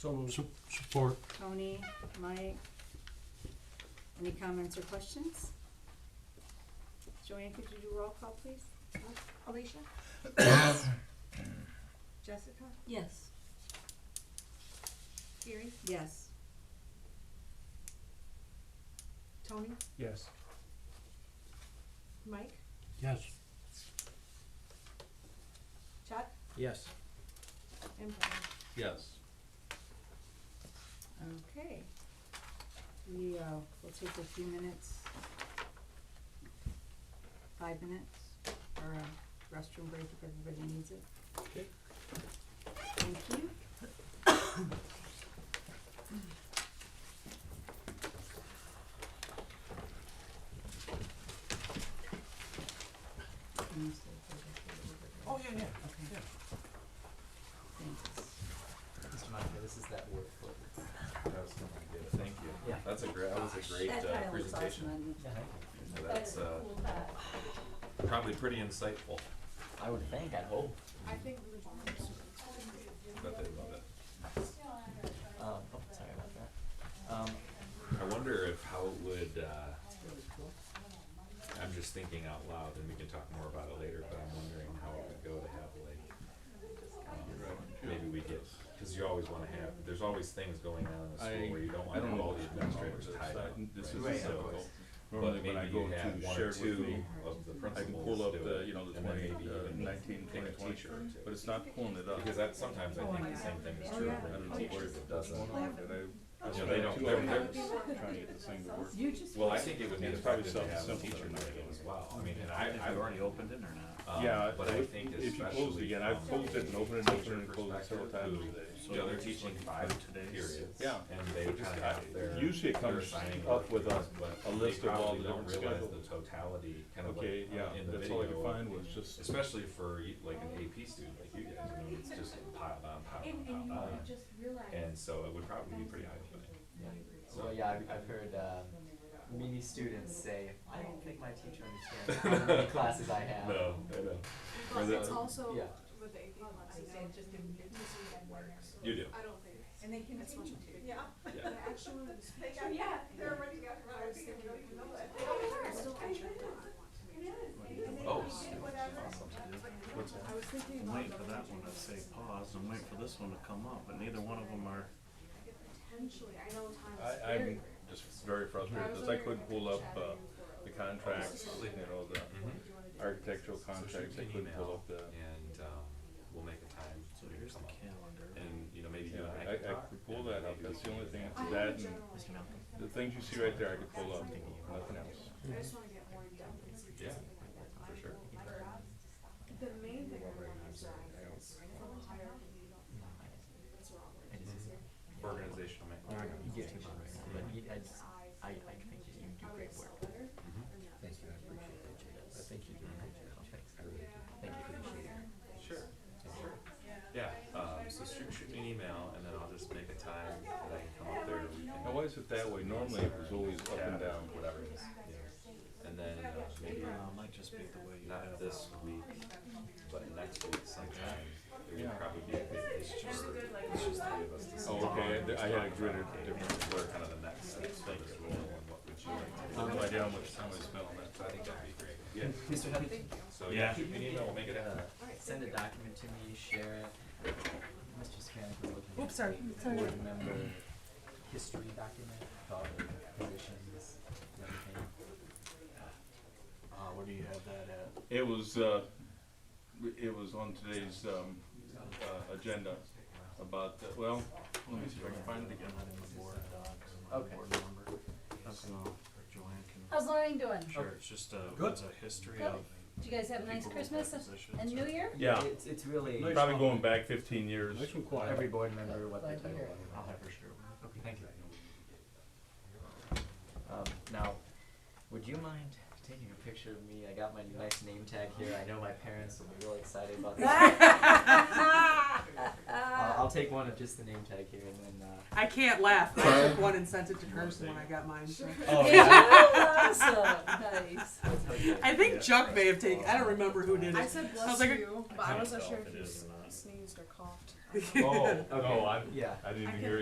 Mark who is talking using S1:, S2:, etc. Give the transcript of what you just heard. S1: So moved. Support.
S2: Tony, Mike. Any comments or questions? Joanne, could you do roll call, please?
S3: Alicia? Jessica?
S4: Yes.
S3: Gary?
S2: Yes.
S3: Tony?
S1: Yes.
S3: Mike?
S1: Yes.
S3: Chuck?
S5: Yes.
S3: And Brian.
S5: Yes.
S2: Okay. We, uh, will take a few minutes. Five minutes for a restroom break if everybody needs it.
S5: Okay.
S2: Thank you. Can you stay for just a little bit?
S5: Oh, yeah, yeah.
S2: Okay. Thanks.
S5: Mr. Monica, this is that word for it.
S6: That was an idea. Thank you.
S5: Yeah.
S6: That's a great, that was a great
S2: That
S6: uh,
S2: tile looks awesome
S6: presentation.
S2: on you.
S6: So That's uh, probably pretty insightful,
S5: I would think, I'd hope.
S3: I think we
S6: but they love it.
S5: Um, oh, sorry about that. Um,
S6: I wonder if how it would, uh, I'm just thinking out loud and we can talk more about it later, but I'm wondering how it would go to have like, um, maybe we get, cause you always wanna have, there's always things going on in the
S7: I-
S6: school where you don't
S7: I
S6: wanna
S7: don't
S6: have
S7: know
S6: all the
S7: what's going on
S6: administrators
S7: with this.
S6: tied
S7: I-
S6: up.
S7: this
S6: right?
S7: is
S6: So,
S7: difficult.
S6: But
S7: Normally when I
S6: maybe you
S7: go
S6: have
S7: to
S6: one
S7: share
S6: or
S7: it with
S6: two
S7: me,
S6: of the
S7: I can
S6: principals
S7: pull up
S6: do
S7: the,
S6: it,
S7: you know, the
S6: and then
S7: twenty,
S6: maybe
S7: uh,
S6: even
S7: nineteen,
S6: pick
S7: twenty,
S6: a
S7: twenty,
S6: teacher or two.
S7: but it's not pulling it up.
S6: Because that, sometimes I think the same thing is
S2: Oh,
S6: true
S2: yeah.
S6: for
S7: I
S6: the
S7: don't know
S6: teachers that does
S7: What's going on, but I- I
S6: You know,
S7: spent
S6: they don't-
S7: two
S6: they're-
S7: hours
S6: they're-
S7: Trying to get this thing to work.
S2: You just.
S6: Well, I think it would be
S7: It's probably
S6: effective to have a
S7: something
S6: teacher
S7: simple
S6: night
S7: to
S6: as well, I mean, and I, I've already opened it or not?
S7: Yeah,
S6: But I think
S7: if you close it
S6: especially
S7: again, I've
S6: from
S7: closed it and opened it, and opened it and closed it several times today.
S6: You know, they're teaching five periods.
S7: Yeah.
S6: And they
S7: But
S6: would
S7: just,
S6: kind of
S7: I-
S6: have their.
S7: usually it
S6: their
S7: comes
S6: assigning
S7: up with a-
S6: work, but
S7: a list
S6: they
S7: of all
S6: probably
S7: the
S6: don't
S7: different
S6: realize
S7: schedules.
S6: The totality, kind of like,
S7: Okay, yeah,
S6: uh, in the
S7: that's all I could
S6: video,
S7: find was just,
S6: especially for you- like an AP student like you guys, I mean, it's just piled on, piled on, piled on. And so it would probably be pretty eye opening.
S8: Well, yeah, I've, I've heard um, many students say, I don't think my teacher understands how many classes I have.
S6: No, I know. Or
S8: So,
S6: the-
S3: Also,
S8: yeah.
S3: with the AP classes, I just didn't get this works.
S6: You do.
S3: I don't think. And they continue to. Yeah.
S6: Yeah.
S3: Actually. Yeah, they're already got. I was thinking, you know that. Still contracted.
S6: Oh,
S3: I was thinking
S9: I'm
S3: about.
S9: waiting for that one to say pause, I'm waiting for this one to come up, but neither one of them are,
S3: Potentially, I know time is
S7: I,
S3: very.
S7: I'm just very frustrated, cause I couldn't pull up, uh, the contracts, you know,
S6: Mm-hmm.
S7: the architectural contracts, I couldn't pull up the.
S6: and um, we'll make a time so
S9: so
S6: you
S9: here's
S6: can
S9: the
S6: come up.
S9: calendar.
S6: And you know maybe you
S7: Yeah,
S6: and
S7: I,
S6: I,
S7: I
S6: can talk,
S7: could pull
S6: and
S7: that
S6: maybe
S7: up,
S6: we
S7: that's the
S6: can-
S7: only thing, that and the things you see right there, I could pull up, nothing else.
S3: I just wanna get more in depth and see
S6: Yeah,
S3: something like that.
S6: for sure.
S3: The main thing I want is that it's from higher, that's wrong.
S6: Mm-hmm. Organizational Mm-hmm.
S8: Yeah,
S6: man.
S8: you but you, I, just- I, I think that you do
S3: I would
S8: great
S3: excel
S8: work.
S3: better.
S6: Mm-hmm.
S8: Thank you, I appreciate it, Judith. I think you do great job. Thanks. I really do. Thank you for the share.
S6: Sure, sure. Yeah. Um, so shoot, shoot me an email and then I'll just make a time that I can come up there. and we can-
S7: Now, why is it that way? Normally it was always up and
S6: Yeah,
S7: down,
S6: whatever it is. Yeah. And then uh, maybe
S9: Uh, might just be the way you have
S6: not
S9: it.
S6: this week, but next week sometime. There
S7: Yeah.
S6: would probably be a big issue. It's just three of us. to
S7: Oh,
S6: sit
S7: okay,
S6: down and
S7: I- I had a
S6: talk
S7: greater
S6: about
S7: difference.
S6: What are kind of the next steps for this role and what would you like to do?
S7: I have no idea how much time I spent on that.
S6: So I think that'd be great.
S8: Mr. Huggins,
S6: So yeah,
S9: Yeah.
S6: shoot me an email, we'll make it
S8: uh,
S6: happen.
S8: send a document to me, share it. Mr. Scanlon was looking at the board member history document, with all the positions, and everything.
S9: Uh, where do you have that at?
S7: It was, uh, it was on today's, um, uh, agenda about, the- well, let me see if I can find it again.
S9: Not in the board docs, not
S8: Okay.
S9: the board number. So Joanne can,
S10: How's Lorraine doing?
S9: sure, it's just a, it's a history of.
S10: Did you guys have a nice
S9: people,
S10: Christmas
S9: positions,
S10: and New Year?
S7: Yeah,
S8: It's, it's really,
S7: probably going back fifteen years.
S8: every board member, what their
S10: Glad to
S8: title
S10: hear
S8: was.
S10: it.
S9: I'll have her share.
S8: Okay, thank you. Um, now, would you mind taking a picture of me? I got my nice name tag here. I know my parents will be really excited about this. I'll, I'll take one of just the name tag here and then, uh,
S11: I can't laugh. I took one and sent it to Kirsten when I got mine. so.
S10: awesome. Nice.
S8: let's hope that-
S11: I think Chuck may have taken. I don't remember who did
S3: I
S11: it.
S3: said
S11: was
S3: bless
S11: like a-
S3: you, but I wasn't sure
S9: If
S3: if
S9: it
S3: you.
S9: is or not.
S8: sneezed or coughed.
S3: Oh, no, I,
S12: Yeah.
S3: I
S8: I
S3: didn't
S7: Oh,
S3: even
S8: can-
S3: hear